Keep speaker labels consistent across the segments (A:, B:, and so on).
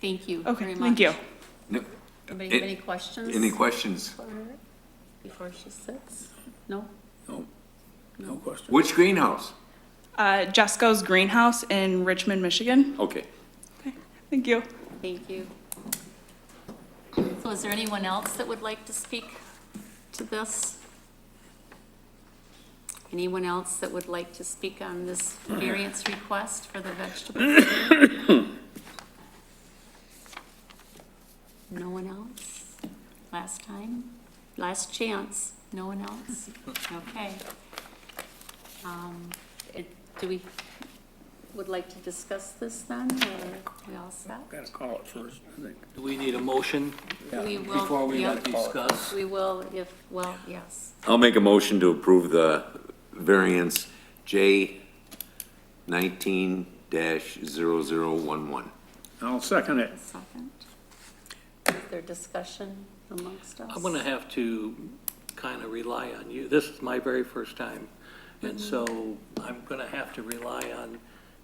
A: Thank you very
B: Okay,
A: much.
B: thank you.
C: No,
A: Anybody have
C: a-
A: any questions?
C: Any questions?
A: for her Before she sits? No?
D: No, no question.
C: Which greenhouse?
B: Uh, Jesco's Greenhouse in Richmond, Michigan.
D: Okay.
B: Thank you.
A: Thank you. So is there anyone else that would like to speak to this? Anyone else that would like to speak on this variance request for the vegetables? No one else? Last time? Last chance? No one else? Okay. Um, it- Do we, would like to discuss this then, or we all set?
D: Got to call it first, I think.
E: Do we need a motion
A: We will.
E: before we
A: yeah,
E: discuss?
A: We will if, well, yes.
C: I'll make a motion to approve the variance J nineteen dash zero zero one one.
D: I'll second it.
A: A second. Is there discussion amongst us?
E: I'm going to have to kind of rely on you. This is my very first time, and so I'm going to have to rely on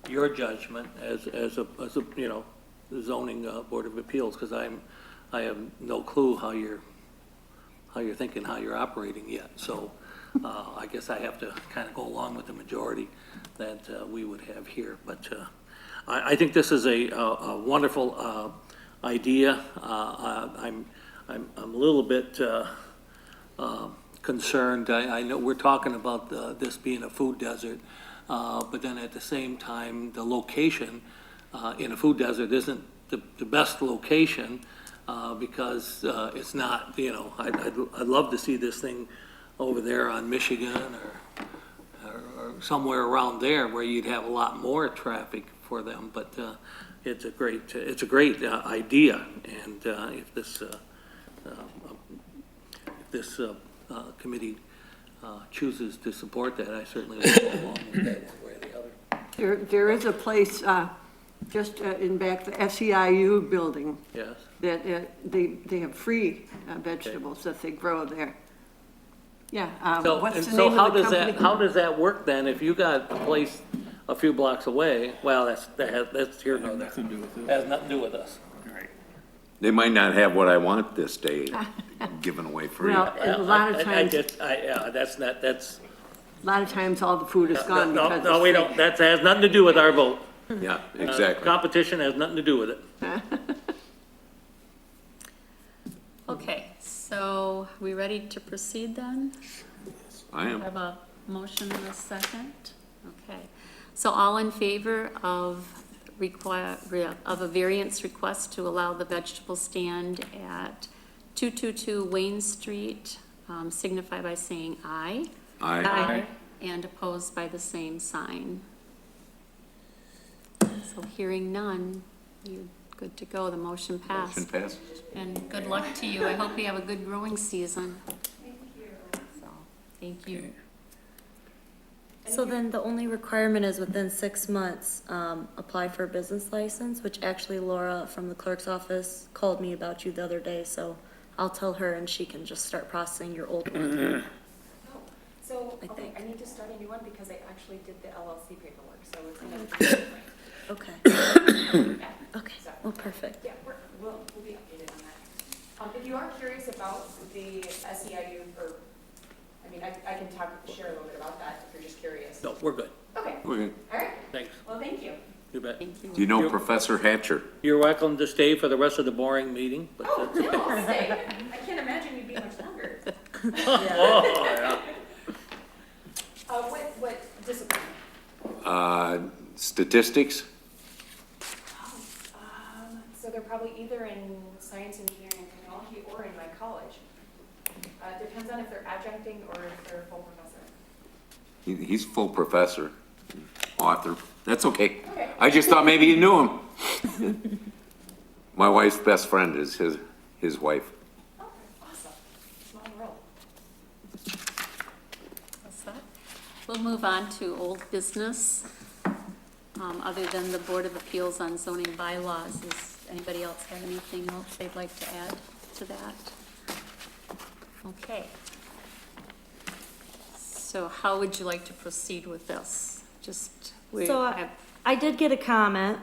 E: your judgment as, as a, as a, you know, the zoning uh, board of appeals, because I'm, I have no clue how you're, how you're thinking, how you're operating yet. So uh, I guess I have to kind of go along with the majority that uh, we would have here. But uh, I, I think this is a, a a wonderful uh, idea. Uh, I- I'm, I'm, I'm a little bit uh, uh, concerned. I, I know we're talking about uh, this being a food desert, uh, but then at the same time, the location uh, in a food desert isn't the, the best location uh, because uh, it's not, you know, I'd, I'd, I'd love to see this thing over there on Michigan or, or or somewhere around there where you'd have a lot more traffic for them, but uh, it's a great, it's a great uh, idea. And uh, if this, uh, if this uh, uh, committee uh, chooses to support that, I certainly will go along with that one way or the other.
F: There, there is a place, uh, just uh, in back, the SEIU building,
E: Yes,
F: that, uh, they, they have free uh, vegetables that they grow there. Yeah, uh,
E: so, and
F: what's the
E: so
F: name
E: how
F: of the
E: does that, how
F: company?
E: does that work then, if you got a place a few blocks away, well, that's, that has, that's here nor there. Has nothing to do with us.
C: They might not have what I want this day given away free.
F: Well, and a lot
E: I-
F: of
E: I- I
F: times, a
E: just, I, yeah, that's not, that's,
F: lot of times all the food is
E: no,
F: gone because
E: no,
F: it's
E: no, we don't, that has nothing to do with our vote.
C: Yeah,
E: Uh,
C: exactly.
E: Competition has nothing to do with it.
A: Okay, so we ready to proceed then?
C: I
A: I
C: am.
A: have a motion and a second. Okay. So all in favor of require, of a variance request to allow the vegetable stand at 222 Wayne Street, um, signify by saying aye.
C: I,
A: And opposed by the same sign. So hearing none, you're good to go, the motion
C: motion
A: passed.
C: passes.
A: And good luck to you, I hope you have a good growing season. So, Thank you.
G: So then the only requirement is within six months, um, apply for a business license, which actually Laura from the clerk's office called me about you the other day, so I'll tell her and she can just start processing your old one.
H: Oh, So,
G: I
H: okay,
G: think.
H: I need to start a new one because I actually did the LLC paperwork, so it's gonna be different.
G: Okay, okay,
H: So,
G: well, perfect.
H: Yeah, we're, we'll, we'll be updated on that. Um, if you are curious about the SEIU, or, I mean, I, I can talk, share a little bit about that if you're just curious.
E: No, we're good,
H: Okay, all
C: Okay.
H: right,
E: thanks,
H: well, thank you.
E: you bet.
A: Thank you.
C: Do you know Professor Hatcher?
E: You're welcome to stay for the rest of the boring meeting, but uh,
H: Oh, no, I'll stay. I can't imagine you'd be much longer.
E: Oh,
H: Uh, what, what discipline?
C: Uh, statistics?
H: Um, so they're probably either in science, engineering, and technology, or in my college. Uh, depends on if they're adjuncting or if they're full professor.
C: He, he's full professor, author. That's okay.
H: Okay.
C: I just thought maybe you knew him. My wife's best friend is his, his wife.
H: Okay, awesome. Small world.
A: That's that. We'll move on to old business, um, other than the Board of Appeals on zoning bylaws. Does anybody else have anything else they'd like to add to that? Okay. So how would you like to proceed with this? Just, we
G: So I-
A: have,
G: I did get a comment